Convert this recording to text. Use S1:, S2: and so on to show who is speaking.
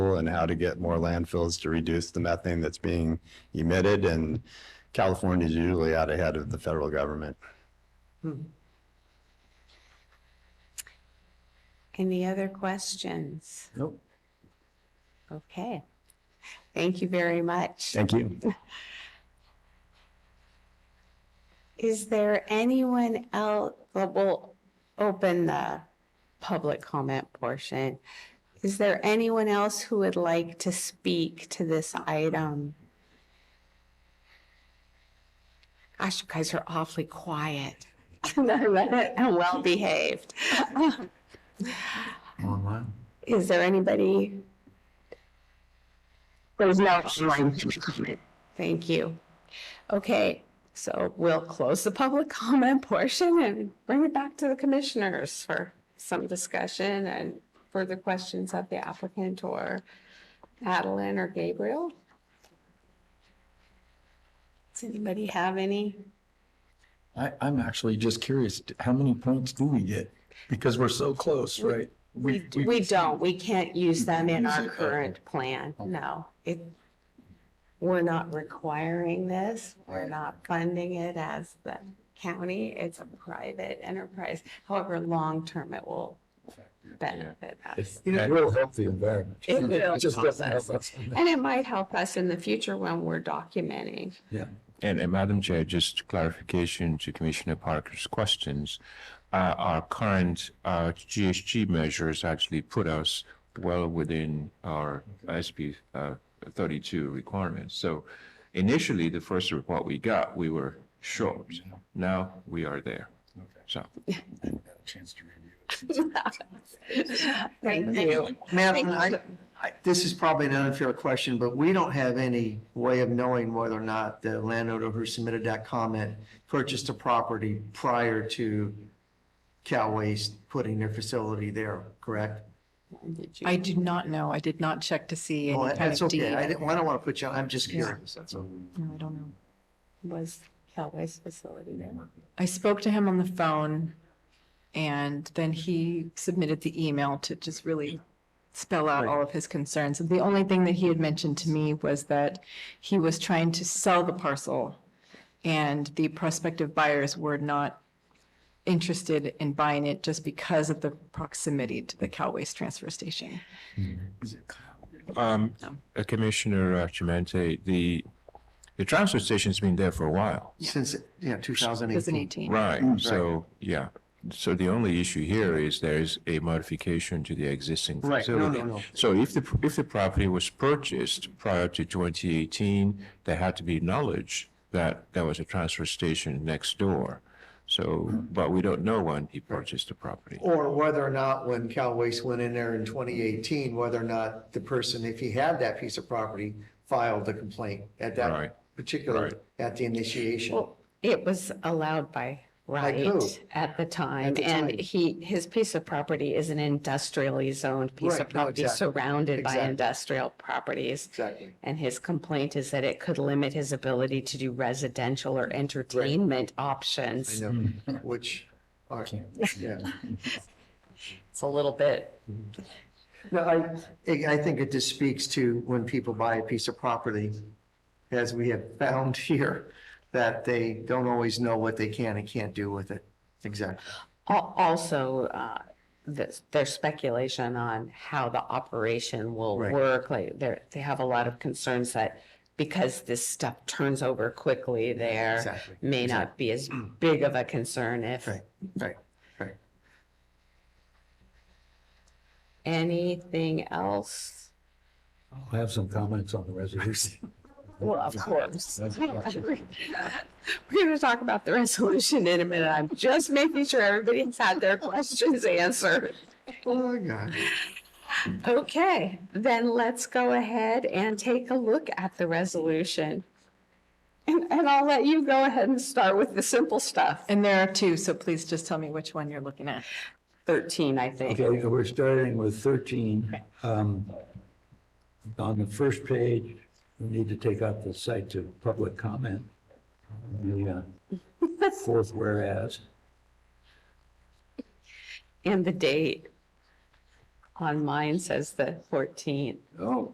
S1: and how to get more landfills to reduce the methane that's being emitted. And California's usually out ahead of the federal government.
S2: Hmm. Any other questions?
S1: Nope.
S2: Okay. Thank you very much.
S1: Thank you.
S2: Is there anyone else, well, we'll open the public comment portion. Is there anyone else who would like to speak to this item? Gosh, you guys are awfully quiet and well behaved.
S3: Online?
S2: Is there anybody? There's no online comment. Thank you. Okay, so we'll close the public comment portion and bring it back to the commissioners for some discussion and further questions of the applicant or Madeline or Gabriel. Does anybody have any?
S3: I, I'm actually just curious, d- how many points do we get? Because we're so close, right?
S2: We, we don't, we can't use them in our
S3: Use it, okay.
S2: current plan, no. It, we're not requiring this, we're
S3: Right.
S2: not funding it as the county, it's a private enterprise. However, long-term, it will benefit us.
S3: It will help the environment.
S2: It will
S3: just doesn't help us.
S2: And it might help us in the future when we're documenting.
S3: Yeah.
S4: And and Madam Chair, just clarification to Commissioner Parker's questions. Uh, Our current uh, GHG measures actually put us well within our SB uh, 32 requirements. So initially, the first report we got, we were short. Now we are there. So
S3: Chance to review.
S2: Thank you.
S5: Madam, I, I, this is probably an unfair question, but we don't have any way of knowing whether or not the landowner who submitted that comment purchased a property prior to Cal Waste putting their facility there, correct?
S6: I do not know. I did not check to see
S5: Well,
S6: any kind
S5: that's
S6: of deed.
S5: okay. I
S6: No,
S5: didn't, I don't want to put you, on. I'm just curious, that's all.
S6: I don't know.
S2: Was Calway's facility there?
S6: I spoke to him on the phone and then he submitted the email to just really spell out all of his concerns. And the only thing that he had mentioned to me was that he was trying to sell the parcel and the prospective buyers were not interested in buying it just because of the proximity to the Cal Waste Transfer Station.
S4: um, uh, Commissioner uh, Chimente, the, the transfer station's been there for a while.
S5: Since, yeah, two thousand
S6: It was in
S5: eighteen.
S6: 18.
S4: Right,
S5: Mm.
S4: so, yeah, so the only issue here is there is a modification to the existing
S5: Right, no, no,
S4: facility.
S5: no.
S4: So if the, if the property was purchased prior to twenty eighteen, there had to be knowledge that there was a transfer station next door. So,
S5: Mm.
S4: but we don't know when he purchased the property.
S5: Or whether or not when Cal Waste went in there in twenty eighteen, whether or not the person, if he had that piece of property, filed the complaint
S4: Right.
S5: at that particular,
S4: Right.
S5: at the initiation.
S2: Well, it was allowed by
S5: who?
S2: right at the time,
S5: At the
S2: and
S5: time.
S2: he, his piece of property is an industrially zoned piece of
S5: Right, no,
S2: property
S5: exactly.
S2: surrounded by
S5: Exactly.
S2: industrial properties.
S5: Exactly.
S2: And his complaint is that it could limit his ability to do residential or entertainment
S5: I
S2: options.
S5: know, which are, yeah.
S2: It's a little bit,
S5: No, I, I I think it just speaks to when people buy a piece of property, as we have found here, that they don't always know what they can and can't do with it. Exactly.
S2: al- also, uh, there's, there's speculation on how the operation will
S5: Right.
S2: work, like, they're, they have a lot of concerns that because this stuff turns over quickly there,
S5: Exactly.
S2: may not be as big of a concern if
S5: Right, right, right.
S2: anything else.
S3: I'll have some comments on the resolution.
S2: Well, of course. We're gonna talk about the resolution in a minute. I'm just making sure everybody's had their questions answered.
S5: Oh, my God.
S2: Okay, then let's go ahead and take a look at the resolution. And, and I'll let you go ahead and start with the simple stuff.
S6: And there are two, so please just tell me which one you're looking at.
S2: Thirteen, I think.
S7: Okay, we're starting with 13. Um, On the first page, we need to take out the site to public comment. The uh, fourth whereas,
S2: And the date on mine says the fourteenth.
S7: oh,